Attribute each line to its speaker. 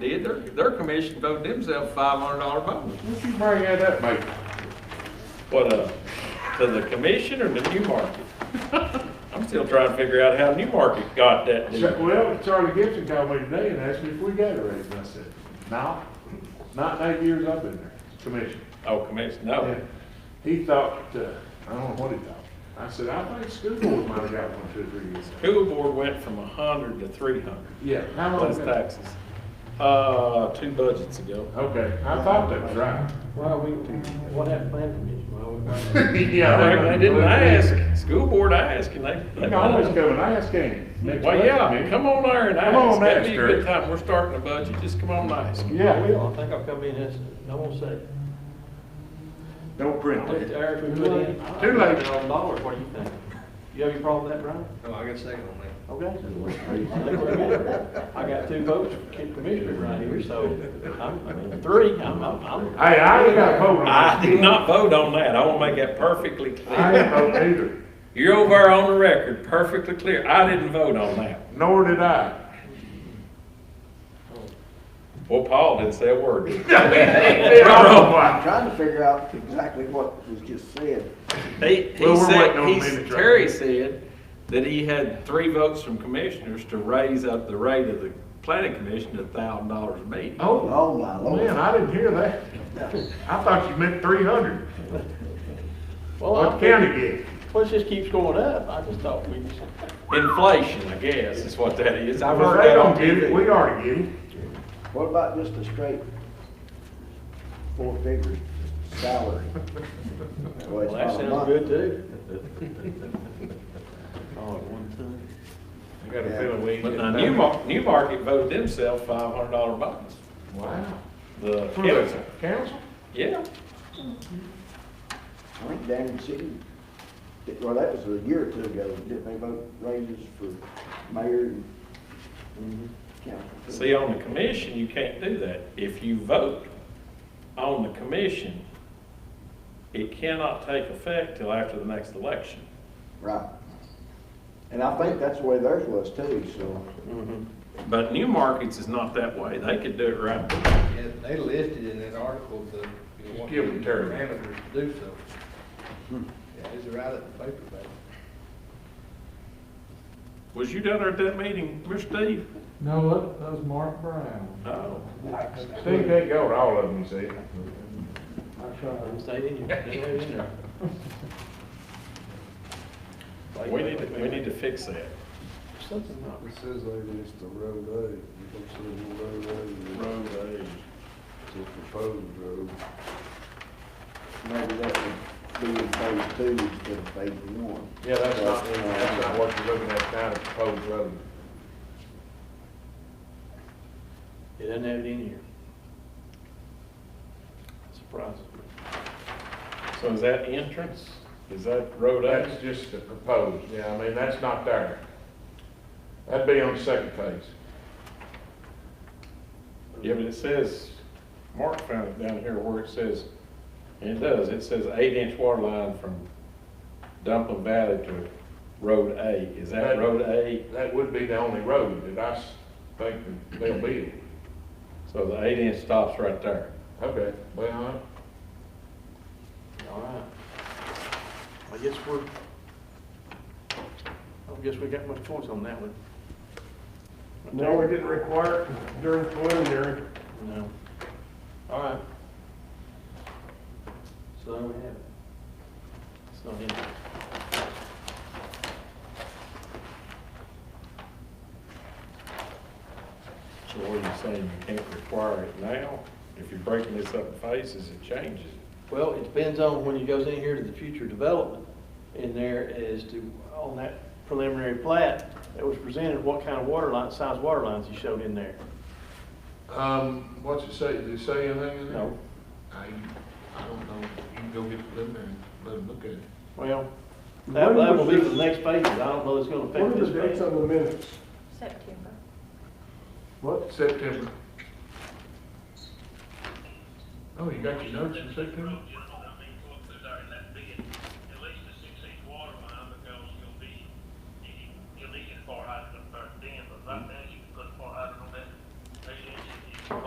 Speaker 1: Did, their, their commission voted themselves five hundred dollar bonus.
Speaker 2: What you bring that up, mate?
Speaker 1: What, uh, to the commission or the New Market? I'm still trying to figure out how New Market got that
Speaker 2: Ch-
Speaker 1: deal.
Speaker 2: Well, Charlie Gibson called me today and asked me if we got a raise, and I said, no, not in eight years I've been there, commission.
Speaker 1: Oh, commission, no.
Speaker 2: And He thought, uh, I don't know what he thought. I said, I think school board might have got one two or three years. ago."
Speaker 1: School board went from a hundred to three hundred,
Speaker 2: Yeah, how long?
Speaker 1: plus
Speaker 2: ago?
Speaker 1: taxes, uh, two budgets ago.
Speaker 2: Okay, I thought that was right.
Speaker 3: Well, we, what happened to plan commission? Well, we might-
Speaker 2: Yeah,
Speaker 1: They they didn't ask, school board asked, and they.
Speaker 2: You
Speaker 1: they-
Speaker 2: can always come and ask, can't you?
Speaker 1: Well, yeah, come on there and
Speaker 2: Come on
Speaker 1: ask, that'd
Speaker 2: ask
Speaker 1: be a
Speaker 2: her.
Speaker 1: good time, we're starting a budget, just come on and ask.
Speaker 3: I
Speaker 2: Yeah,
Speaker 3: will, I think I'll come in this, I won't say.
Speaker 2: don't print
Speaker 3: Look at
Speaker 2: it.
Speaker 3: the hours we put in.
Speaker 2: Too late.
Speaker 3: Hundred dollars, what do you think? You have any problem with that, Brian?
Speaker 4: No, Oh, I got a second on that.
Speaker 3: Okay. I think we're good. I got two votes for kid commissioner right here, so I'm, I mean, three, I'm, I'm, I'm.
Speaker 2: Hey, I ain't got a vote on that.
Speaker 1: I did not vote on that, I want to make that perfectly
Speaker 2: I
Speaker 1: clear.
Speaker 2: ain't voting either,
Speaker 1: You're over there on the record, perfectly clear, I didn't vote on that.
Speaker 2: nor did I.
Speaker 1: Well, Paul didn't say a word.
Speaker 4: I'm
Speaker 2: Oh,
Speaker 4: trying to figure out exactly what was just said.
Speaker 1: He, he
Speaker 2: Well, we're waiting
Speaker 1: said,
Speaker 2: on
Speaker 1: he,
Speaker 2: the minutes right
Speaker 1: Terry said that he had three votes from commissioners to raise up the rate of the planning commission to thousand dollars a meeting.
Speaker 2: Oh,
Speaker 4: Oh, my
Speaker 2: man,
Speaker 4: lord.
Speaker 2: I didn't hear that. I thought you meant three hundred,
Speaker 3: Well,
Speaker 2: what
Speaker 3: I'm.
Speaker 2: the county gave.
Speaker 3: Well, it just keeps going up, I just thought we just.
Speaker 1: Inflation, I guess, is what that is. I've
Speaker 2: Well,
Speaker 1: heard
Speaker 2: they
Speaker 1: that on
Speaker 2: don't get it,
Speaker 1: TV.
Speaker 2: we already get it.
Speaker 4: What about just a straight four figure salary? Well, it's
Speaker 3: Well, that
Speaker 4: not a
Speaker 3: sounds
Speaker 4: month.
Speaker 3: good too. Oh, at one time.
Speaker 5: I got a feeling we ain't
Speaker 1: But
Speaker 5: getting
Speaker 1: now,
Speaker 5: back.
Speaker 1: Newmarket, Newmarket voted themselves five hundred dollar bonus.
Speaker 2: Wow.
Speaker 1: The
Speaker 2: For the
Speaker 1: council,
Speaker 2: council?
Speaker 1: yeah.
Speaker 4: I think Daniel City, did- well, that was a year or two ago, didn't they vote raises for mayor and council?
Speaker 1: See, on the commission, you can't do that. If you vote on the commission, it cannot take effect till after the next election.
Speaker 4: Right. And I think that's the way theirs was too, so.
Speaker 1: But new markets is not that way. They could do it right.
Speaker 6: Yeah, they listed in that article the, you know, what
Speaker 2: Give them
Speaker 6: the
Speaker 2: term.
Speaker 6: parameters to do so.
Speaker 4: Hmm.
Speaker 6: Yeah, it's right at the paper, but.
Speaker 1: Was you down there at that meeting, Mr. Steve?
Speaker 2: No, that, that was Mark Brown.
Speaker 1: No.
Speaker 2: Steve can't go to all of them, see?
Speaker 3: I tried. Stayed in here, stayed in there.
Speaker 1: We need, to- we need to fix that.
Speaker 3: Something not
Speaker 7: It says over it's the road aid, you don't see no road aid,
Speaker 1: Road aid.
Speaker 7: it's a proposed road.
Speaker 4: Maybe that would be in phase two instead of phase one. uh,
Speaker 2: Yeah, that's not, that's not what you're looking at now, the proposed road.
Speaker 3: It doesn't have it in here. Surprises me.
Speaker 1: So is that entrance? Is that road
Speaker 2: That's
Speaker 1: aid?
Speaker 2: just the proposed, yeah, I mean, that's not there. That'd be on the second phase.
Speaker 1: Yeah, but it says, Mark found it down here where it says, and it does, it says eight inch water line from Dumpling Valley to Road A. Is that
Speaker 2: That-
Speaker 1: Road A?
Speaker 2: That would be the only road that I s- think that they'll build.
Speaker 1: So the eight inch stops right there.
Speaker 2: Okay, well,
Speaker 3: All right. I guess we're, I guess we got much choice on that one.
Speaker 8: No, we didn't require it during preliminary.
Speaker 3: No. All right. So there we have it. It's not in there.
Speaker 1: So what are you saying? You can't require it now? If you're breaking this up in phases, it changes it.
Speaker 3: Well, it depends on when it goes in here to the future development in there as to, on that preliminary plat that was presented, what kind of water line, size water lines you showed in there.
Speaker 2: I, um, what's it say, did it say anything in there?
Speaker 3: No.
Speaker 2: I, I don't know, you can go get the limit and let them look at it.
Speaker 3: Well, that, that will be for the next phases. I don't know if it's gonna
Speaker 8: What
Speaker 3: affect
Speaker 8: are
Speaker 3: this
Speaker 8: the dates
Speaker 3: phase.
Speaker 8: on the minutes?
Speaker 9: September.
Speaker 2: What? Oh, September. Oh, you got your notes in September?